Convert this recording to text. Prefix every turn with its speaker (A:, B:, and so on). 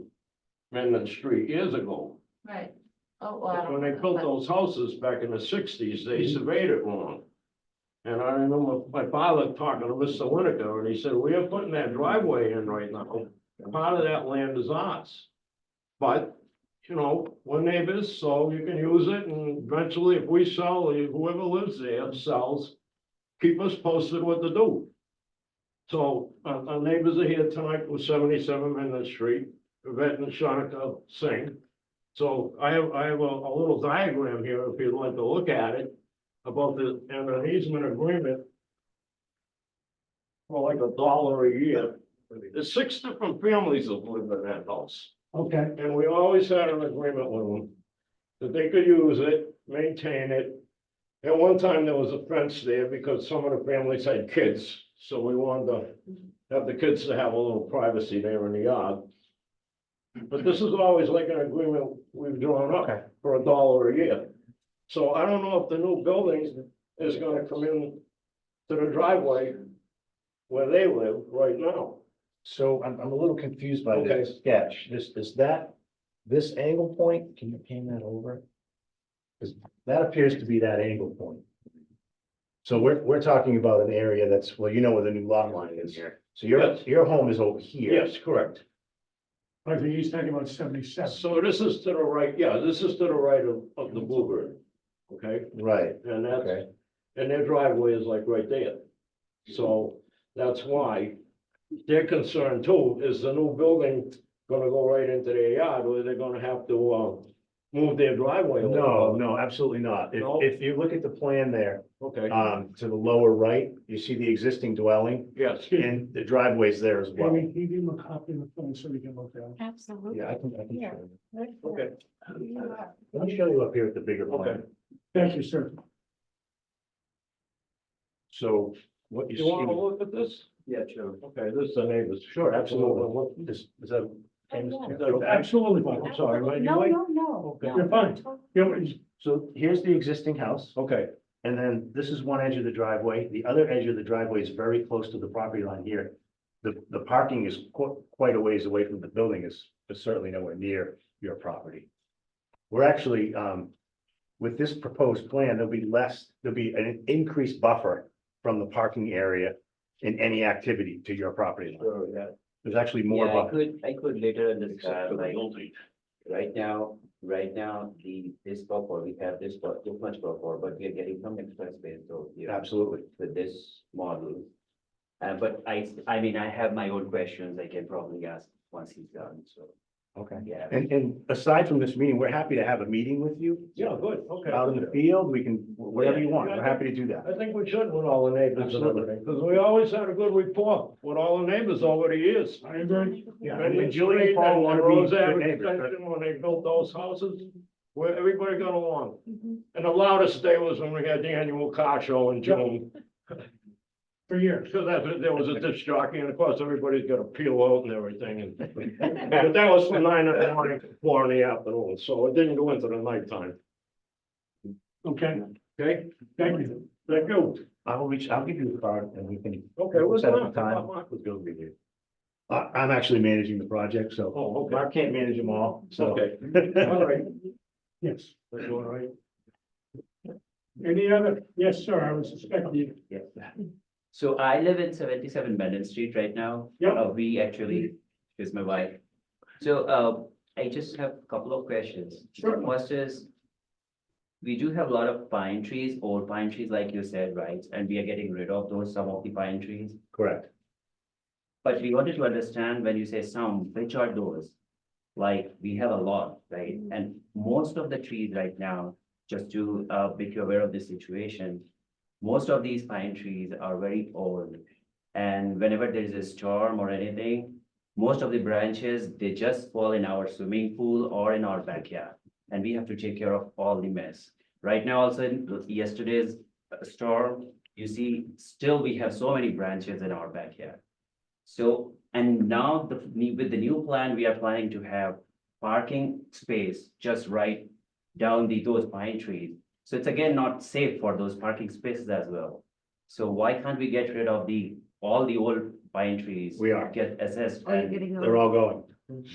A: Mendon Street years ago.
B: Right. Oh, well. I don't
A: When they
B: know,
A: built
B: but-
A: those houses back in the sixties, they surveyed it wrong. And I remember my father talking to Mr. Winiker, and he said, we are putting that driveway in right now. Part of that land is ours. But, you know, we're neighbors, so you can use it, and eventually if we sell, whoever lives there sells, keep us posted what to do. So, uh, our, our neighbors are here tonight with seventy-seven Mendon Street, Yvette and Shanika Singh. So I have, I have a, a little diagram here, if you'd like to look at it, about the, and an easement agreement. For like a dollar a year, there's six different families that live in that house,
C: Okay,
A: and we always had an agreement with them. That they could use it, maintain it. At one time, there was a fence there because some of the families had kids, so we wanted to have the kids to have a little privacy there in the yard. But this is always like an agreement we've drawn
C: Okay.
A: up for a dollar a year. So I don't know if the new building is gonna come in to the driveway where they live right now.
C: so I'm, I'm a little confused by
A: Okay.
C: this sketch. This, is that, this angle point, can you pan that over? Because that appears to be that angle point. So we're, we're talking about an area that's, well, you know where the new lot line is. So your,
A: Yes.
C: your home is over here.
A: Yes, correct.
D: I think he's talking about seventy-seven.
A: So this is to the right, yeah, this is to the right of, of the Bluebird. Okay,
C: Right,
A: and that's,
C: okay,
A: and their driveway is like right there. So that's why their concern too is the new building gonna go right into their yard or they're gonna have to, uh, move their driveway. a little
C: no,
A: bit.
C: no, absolutely not. If,
A: No?
C: if you look at the plan there,
A: Okay,
C: um, to the lower right, you see the existing dwelling
A: yes.
C: and the driveway's there as well.
D: Amy, can you give him a copy of the phone so we can look at it?
B: Absolutely.
C: Yeah, I can, I can show you.
B: Right there.
A: Okay,
B: You are.
C: Let me show you up here at the bigger
A: Okay.
C: plan.
D: Thank you, sir.
C: So what you
A: you wanna
C: see.
A: look at this?
C: Yeah, sure.
A: Okay, this is the neighbors.
C: Sure, absolutely. What- Is, is that?
B: Oh,
D: Absolutely.
B: yeah.
A: I'm sorry, right, you
B: No,
A: wait.
B: no, no.
A: Okay.
B: no.
D: You're fine. Yeah, but he's-
C: So here's the existing house,
A: Okay,
C: and then this is one edge of the driveway. The other edge of the driveway is very close to the property line here. The, the parking is qu- quite a ways away from the building is, is certainly nowhere near your property. We're actually, um, with this proposed plan, there'll be less, there'll be an increased buffer from the parking area in any activity to your property line.
E: Sure, yeah.
C: There's actually more
E: Yeah, I
C: buffer.
E: could, I could later
A: except for
E: understand,
A: the
E: uh, like,
A: building.
E: right now, right now, the, this buffer, we have this, bu- too much buffer, but we are getting some extra space, so, yeah,
C: Absolutely.
E: with this model. Uh, but I, I mean, I have my own questions I can probably ask once he's done, so,
C: Okay.
E: yeah.
C: And, and aside from this meeting, we're happy to have a meeting with you.
A: yeah, good, okay.
C: Out in the field, we can, whatever you want, we're happy to do that.
A: I think we should with all the neighbors and
C: Absolutely.
A: everything, because we always had a good rapport with all the neighbors over the years.
D: I agree.
C: Yeah,
A: When
C: and
A: we
C: Julie and
A: street
C: Paul
A: and
C: want
A: Rose
C: to be good
A: Avenue
C: neighbors. but-
A: extension, when they built those houses, where everybody got along.
B: Mhm.
A: And the loudest day was when we had the annual car show in June,
D: For years.
A: because that's, when there was a disc jockey, and of course, everybody's got a peel out and everything, and. But that was from nine in the morning, to four in the afternoon, so it didn't go into the nighttime,
D: Okay,
A: okay?
D: thank you.
A: Thank you.
C: I will reach, I'll give you the card and we can.
A: Okay, what's
C: Set up a
A: that?
C: time.
A: was gonna be there.
C: I, I'm actually managing the project, so.
A: Oh, okay.
C: Mark can't manage them all, so.
A: Okay. All right.
D: Yes.
A: That's all right.
D: Any other? Yes, sir, I was suspecting you.
E: Yeah. So I live in seventy-seven Mellon Street right now.
D: Yep.
E: Uh, We actually, is my wife. So uh, I just have a couple of questions.
D: Sure.
E: First is, we do have a lot of pine trees, old pine trees, like you said, right? And we are getting rid of those, some of the pine trees.
C: Correct.
E: But we wanted to understand when you say some, which are those? Like, we have a lot, right? And most of the trees right now, just to uh make you aware of this situation. Most of these pine trees are very old. And whenever there is a storm or anything, most of the branches, they just fall in our swimming pool or in our backyard. And we have to take care of all the mess. Right now, also in yesterday's uh, storm, you see, still we have so many branches in our backyard. So, and now the, with the new plan, we are planning to have parking space just right down the, those pine trees. So it's again not safe for those parking spaces as well. So why can't we get rid of the, all the old pine trees?
C: We are.
E: Get assessed
B: Oh, you're
E: and
B: getting.
C: They're all going.